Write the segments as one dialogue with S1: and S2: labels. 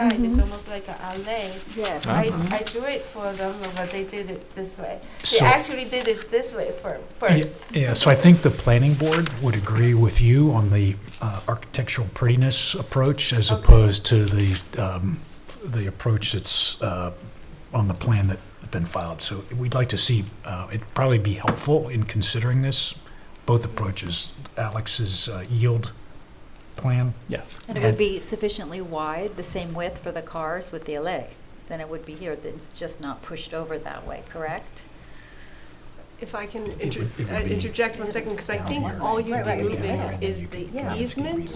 S1: side, it's
S2: Mm-hmm.
S1: almost like a alley.
S3: Yes.
S1: I, I drew it for them, but they did it this way. They
S4: Uh-huh. So-
S1: actually did it this way fir- first.
S4: Yeah, yeah, so I think the planning board would agree with you on the uh, architectural prettiness approach as
S1: Okay.
S4: opposed to the, um, the approach that's uh, on the plan that's been filed. So we'd like to see, uh, it'd probably be helpful in considering this, both approaches, Alex's uh, yield plan.
S5: Yes.
S3: And it would be sufficiently wide, the same width for the cars with the alley, then it would be here, it's just not pushed over that way, correct?
S2: If I can
S4: It
S2: inter-
S4: would- it would
S2: uh,
S4: be
S2: interject one second, because I
S4: down
S2: think
S4: here.
S2: all you'd be
S3: Right, right,
S2: moving
S3: right.
S2: is
S3: Yeah.
S2: the easement,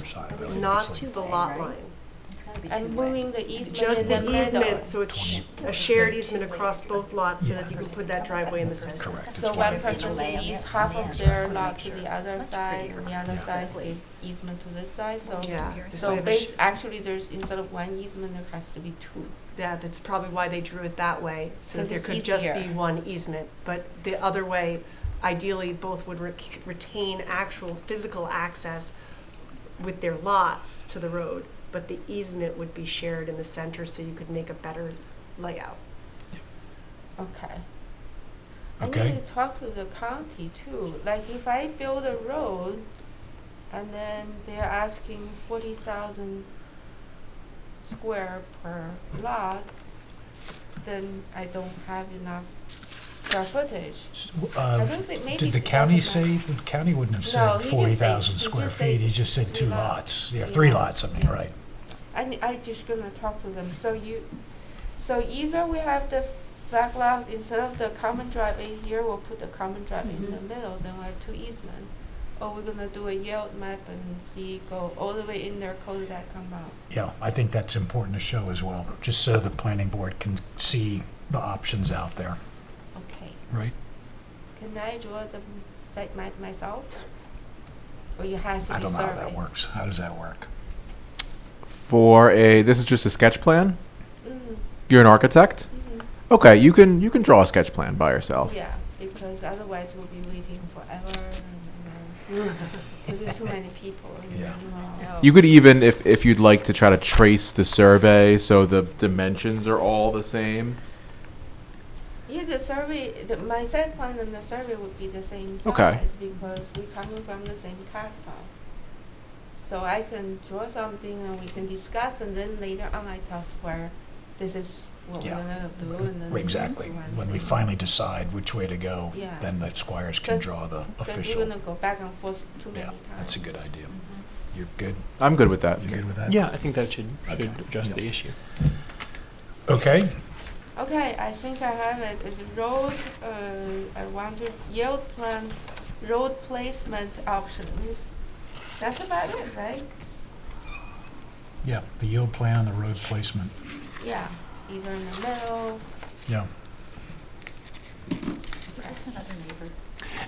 S2: not to the lot line.
S3: It's gotta be
S1: I'm
S3: two-way.
S1: moving the easement
S2: Just
S1: in the
S2: the
S1: middle.
S2: easement, so it's sh- a shared easement across both lots so that you can put that driveway in the center.
S4: Correct.
S1: So
S4: It's
S1: one
S4: one-
S1: person
S3: Lay
S1: can
S3: on
S1: use
S3: it,
S1: half
S3: on the
S1: of
S3: end.
S1: their
S3: Just wanna
S1: lot
S3: make
S1: to
S3: sure.
S1: the other
S3: It's much
S1: side, and the
S3: prettier.
S1: other side,
S3: Exactly.
S1: the easement to this side, so.
S2: Yeah. this way
S1: So
S2: of a sh-
S1: bas- actually, there's, instead of one easement, there has to be two.
S2: Yeah, that's probably why they drew it that way, so that
S1: 'Cause
S2: there
S1: it's
S2: could just be
S1: easier.
S2: one easement. But the other way, ideally, both would rec- retain actual physical access with their lots to the road, but the easement would be shared in the center so you could make a better layout.
S1: Okay. I
S4: Okay,
S1: need to talk to the county too. Like if I build a road and then they're asking forty thousand square per lot, then I don't have enough square footage.
S4: S-
S1: I
S4: uh,
S1: don't think maybe.
S4: Did the
S1: it
S4: county
S1: doesn't matter.
S4: say, the county wouldn't have
S1: No,
S4: said
S1: he just
S4: forty thousand
S1: said- he
S4: square
S1: just said
S4: feet, he just said
S1: three
S4: two
S1: lots.
S4: lots, yeah,
S1: Three
S4: three
S1: lots.
S4: lots, I mean,
S1: Yeah.
S4: right.
S1: I, ne- I just gonna talk to them. So you, so either we have the flag lot instead of the common driveway here, we'll put the common driveway in the middle, then we have two easement. Or we're gonna do a yield map and see, go all the way in there, cul that come out.
S4: Yeah, I think that's important to show as well, just so the planning board can see the options out there,
S1: Okay.
S4: right?
S1: Can I draw the m- site map myself? Or you has to
S4: I
S1: be
S4: don't know how that
S1: survey?
S4: works. How does that work?
S5: For a this is just a sketch plan.
S1: Mm,
S5: You're an architect.
S1: mhm.
S5: Okay, you can you can draw a sketch plan by yourself.
S1: Yeah, because otherwise we'll be waiting forever and, and, cause there's too many people
S4: Yeah.
S1: involved.
S5: You
S3: Oh.
S5: could even if if you'd like to try to trace the survey so the dimensions are all the same.
S1: Yeah, the survey, the, my set point and the survey would be the same size
S5: Okay.
S1: because we're coming from the same cat farm. So I can draw something and we can discuss, and then later on I tell Square, this is what
S4: Yeah.
S1: we're gonna do, and then
S4: Right, Exactly.
S1: we do one
S4: When we
S1: thing.
S4: finally decide which way to go,
S1: Yeah.
S4: then the squires can
S1: 'Cause-
S4: draw the
S1: Because we're
S4: official.
S1: gonna go back and forth too many
S4: Yeah,
S1: times.
S4: that's a good idea.
S3: Mhm.
S1: Mm-hmm.
S4: You're good?
S5: I'm good with that.
S4: You're good with that?
S6: Yeah, I think that should, should
S4: Okay.
S6: address
S4: Yeah.
S6: the issue.
S4: Okay,
S1: Okay, I think I have it. It's a road, uh, I want to yield plan, road placement options. That's about it, right?
S4: yeah, the yield plan, the road placement,
S1: Yeah, either in the middle,
S4: yeah.
S3: Is this another neighbor?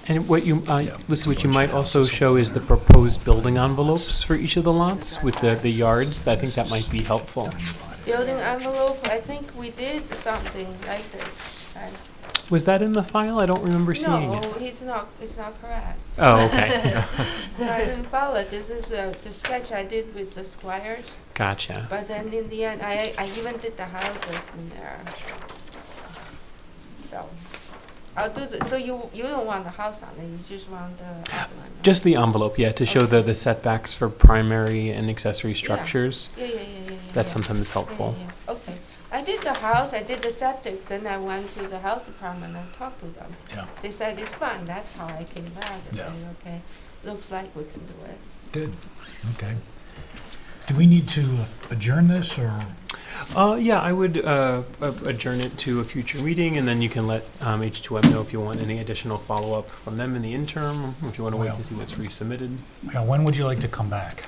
S6: And what you, uh,
S4: Yeah.
S6: Lisa, what you might also
S4: Houses.
S6: show is the proposed building envelopes for each of the lots with the, the yards. I think that might be helpful.
S1: Building envelope, I think we did something like this. I-
S6: Was that in the file? I don't remember seeing
S1: No,
S6: it.
S1: it's not, it's not correct.
S6: Oh, okay.
S1: I didn't follow it. This is uh, the sketch I did with the squires,
S6: Gotcha.
S1: but then in the end, I, I even did the houses in there. So, I'll do the, so you, you don't want the house on it, you just want the. outline, right?
S6: Just the envelope, yeah, to show the, the setbacks for primary and accessory structures.
S1: Yeah, yeah, yeah, yeah, yeah.
S6: That's
S1: yeah.
S6: sometimes helpful.
S1: Yeah, yeah, Okay. I did the house, I did the septic, then I went to the health department and talked to them.
S4: Yeah.
S1: They said it's fine, that's how I came back. I
S4: Yeah.
S1: said, okay, looks like we can do it.
S4: Good, okay. Do we need to uh, adjourn this, or?
S6: Uh, yeah, I would uh, a- adjourn it to a future meeting, and then you can let um, H2M know if you want any additional follow-up from them in the interim, or if you want to wait
S4: Well.
S6: to see what's resubmitted.
S4: Yeah, uh, when would you like to come back?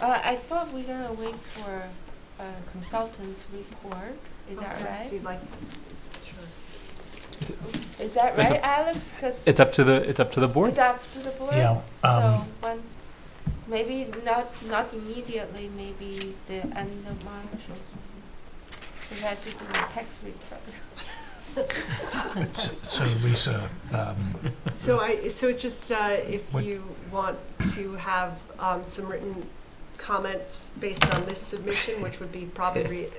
S1: Uh, I thought we were gonna wait for a consultant's report, is that
S2: Okay, So
S1: right?
S2: you'd like, sure.
S1: Is that
S6: It's
S1: right, Alex? 'Cause
S6: It's up to the, it's up to the board.
S1: It's up to the board?
S4: Yeah,
S1: So
S4: um,
S1: when, maybe not, not immediately, maybe the end of March or something. We had to do a tax return.
S4: S- So Lisa, um,
S2: So I, so it's just, uh, if
S4: What-
S2: you want to have, um, some written comments based on this submission, which would be probably